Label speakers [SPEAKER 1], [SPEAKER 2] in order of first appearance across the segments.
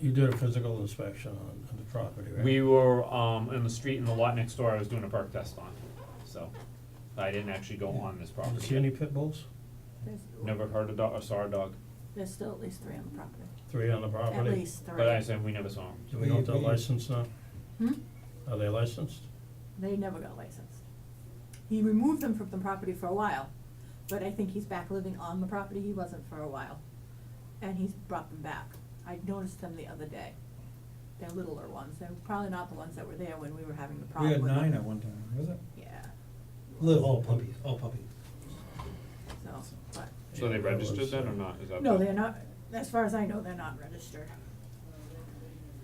[SPEAKER 1] You did a physical inspection on, on the property, right?
[SPEAKER 2] We were, um, in the street in the lot next door, I was doing a perk test on, so, I didn't actually go on this
[SPEAKER 1] Did you see any
[SPEAKER 2] property.
[SPEAKER 1] pit bulls?
[SPEAKER 3] There's,
[SPEAKER 2] Never heard a dog, or saw a dog,
[SPEAKER 3] there's still at least three on the property,
[SPEAKER 1] Three on the
[SPEAKER 3] at
[SPEAKER 1] property?
[SPEAKER 3] least three.
[SPEAKER 2] but I said we never saw them.
[SPEAKER 1] Do we know if they're
[SPEAKER 4] We- we-
[SPEAKER 1] licensed now?
[SPEAKER 3] Hmm?
[SPEAKER 1] Are they licensed?
[SPEAKER 3] They never got licensed. He removed them from the property for a while, but I think he's back living on the property, he wasn't for a while. And he's brought them back. I noticed them the other day. They're littler ones, they're probably not the ones that were there when we were having the
[SPEAKER 4] We
[SPEAKER 3] problem
[SPEAKER 4] had
[SPEAKER 3] with them.
[SPEAKER 4] nine at one time, was it?
[SPEAKER 3] Yeah,
[SPEAKER 4] Little, all puppies, all puppies.
[SPEAKER 3] so, but,
[SPEAKER 2] So they registered then or
[SPEAKER 1] uh,
[SPEAKER 2] not, is that?
[SPEAKER 3] no,
[SPEAKER 2] the-
[SPEAKER 3] they're not, as far as I know, they're not registered.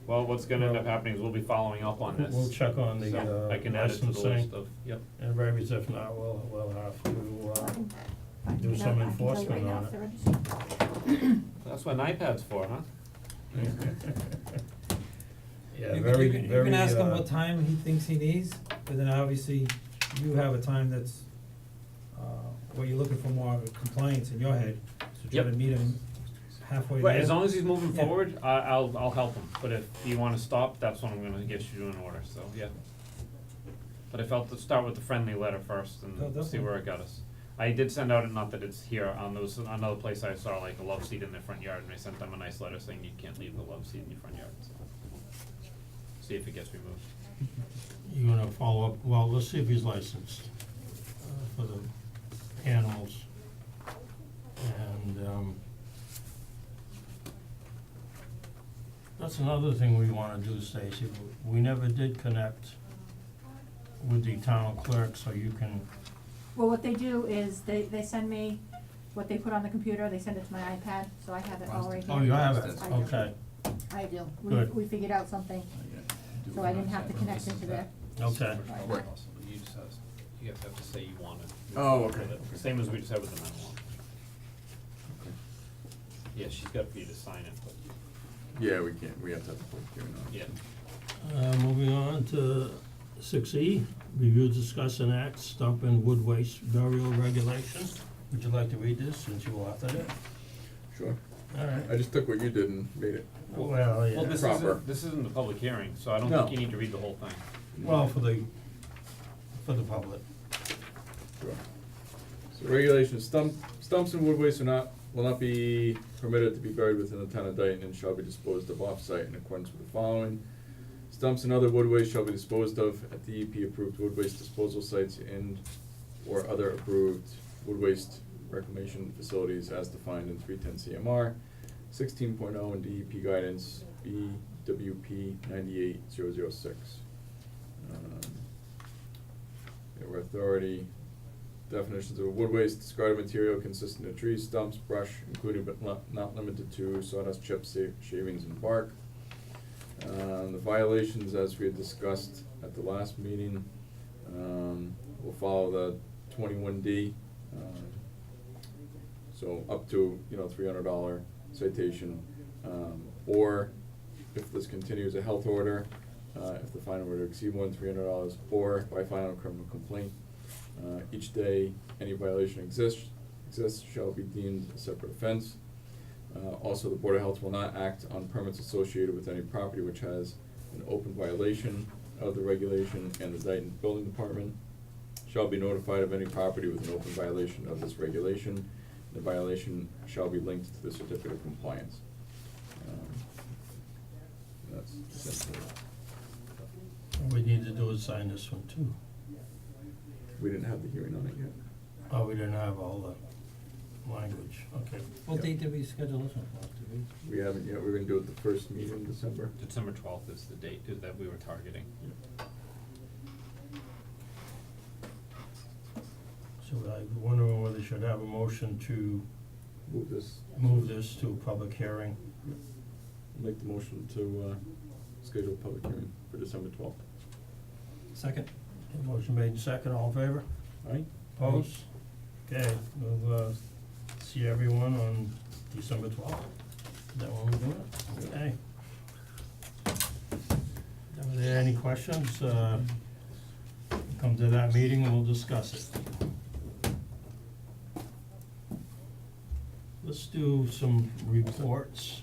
[SPEAKER 2] Well, what's gonna end up happening is we'll be following up on this.
[SPEAKER 1] We'll check on the,
[SPEAKER 2] So,
[SPEAKER 1] uh,
[SPEAKER 2] I can add it to the list
[SPEAKER 1] licensing.
[SPEAKER 2] of, yep.
[SPEAKER 1] And uh, rabies, if not, we'll, we'll have to, uh,
[SPEAKER 3] I can
[SPEAKER 1] Do
[SPEAKER 3] tell-
[SPEAKER 1] some
[SPEAKER 3] I can tell you right
[SPEAKER 1] enforcement
[SPEAKER 3] now
[SPEAKER 1] on
[SPEAKER 3] if
[SPEAKER 1] it.
[SPEAKER 3] they're registered.
[SPEAKER 2] That's what an iPad's for, huh?
[SPEAKER 1] yeah,
[SPEAKER 4] You can- you
[SPEAKER 1] very, very,
[SPEAKER 4] can-
[SPEAKER 1] uh.
[SPEAKER 4] You can ask him what time he thinks he needs, but then obviously you have a time that's, uh, what you're looking for more of a compliance in your head, so try
[SPEAKER 2] Yep.
[SPEAKER 4] to meet him halfway there.
[SPEAKER 2] Right, as long as he's moving
[SPEAKER 4] Yeah.
[SPEAKER 2] forward, I, I'll, I'll help him, but if you wanna stop, that's when I'm gonna get you an order, so, yeah. But I felt to start with the friendly letter first
[SPEAKER 4] No,
[SPEAKER 2] and see where
[SPEAKER 4] definitely.
[SPEAKER 2] it got us. I did send out, not that it's here, um, there was another place I saw like a love seat in their front yard, and I sent them a nice letter saying you can't leave the love seat in your front yard, so. See if it gets removed.
[SPEAKER 1] You gonna follow up, well, let's see if he's licensed, uh, for the animals. And, um, that's another thing we wanna do, Stacy, we never did connect with the town clerk, so you can,
[SPEAKER 3] Well, what they do is they, they send me what they put on the computer, they send it to my iPad, so I have it all right here.
[SPEAKER 1] oh, you have it,
[SPEAKER 3] I do.
[SPEAKER 1] okay,
[SPEAKER 3] I do. We,
[SPEAKER 1] Good.
[SPEAKER 3] we figured out something, so I didn't have to connect into there.
[SPEAKER 1] okay.
[SPEAKER 5] Right.
[SPEAKER 2] You just have, you guys have to say you want it.
[SPEAKER 5] Oh, okay, okay.
[SPEAKER 2] Same as we just had with the nine one.
[SPEAKER 5] Okay.
[SPEAKER 2] Yeah, she's got for you to sign it, but,
[SPEAKER 5] Yeah, we can't, we have to have a public hearing on it.
[SPEAKER 2] yeah.
[SPEAKER 1] Uh, moving on to six E, review, discuss, and act, stump and wood waste burial regulation. Would you like to read this since you authored it?
[SPEAKER 5] Sure,
[SPEAKER 1] All right.
[SPEAKER 5] I just took what you did and made it.
[SPEAKER 1] Well,
[SPEAKER 2] Well, this
[SPEAKER 1] yeah,
[SPEAKER 5] Proper.
[SPEAKER 2] isn't, this isn't the public hearing, so I don't
[SPEAKER 5] No.
[SPEAKER 2] think you need to read the whole thing.
[SPEAKER 1] well, for the, for the public.
[SPEAKER 5] Sure. So regulations, stump, stumps and wood waste are not, will not be permitted to be buried within the town of Dayton and shall be disposed of off-site in accordance with the following. Stumps and other wood waste shall be disposed of at the EP-approved wood waste disposal sites and or other approved wood waste reclamation facilities as defined in three ten CMR, sixteen oh and DEP guidance, BWP ninety-eight zero zero six. Um, Yeah, where authority, definitions of wood waste, discarded material consisting of trees, stumps, brush, including but not, not limited to sawdust, chips, sa- shavings, and bark. Um, the violations, as we had discussed at the last meeting, um, will follow the twenty-one D. um, So up to, you know, three hundred dollar citation, um, or if this continues, a health order, uh, if the fine were to exceed more than three hundred dollars, or by final criminal complaint. Uh, each day any violation exists, exists shall be deemed a separate offense. Uh, also, the Board of Health will not act on permits associated with any property which has an open violation of the regulation, and the Dayton Building Department shall be notified of any property with an open violation of this regulation. The violation shall be linked to the certificate of compliance. Um, That's essentially it.
[SPEAKER 1] What we need to do is sign this one too.
[SPEAKER 5] We didn't have the hearing on it yet.
[SPEAKER 1] Oh, we didn't have all the language, okay.
[SPEAKER 5] Yeah.
[SPEAKER 4] What date did we schedule this one for, did we?
[SPEAKER 5] We haven't yet, we're gonna do it the first meeting in December.
[SPEAKER 2] December twelfth is the date is that we were targeting.
[SPEAKER 1] So I wonder whether we should have a motion to
[SPEAKER 5] Move this,
[SPEAKER 1] move this to a public hearing.
[SPEAKER 5] make the motion to, uh, schedule a public hearing for December twelfth.
[SPEAKER 4] Second,
[SPEAKER 1] Motion made in second, all in favor?
[SPEAKER 5] Alright?
[SPEAKER 1] Opposed? Okay, we'll, uh, see everyone on December twelfth. Is that when we do it? Okay. Are there any questions? Uh, come to that meeting and we'll discuss it. Let's do some reports.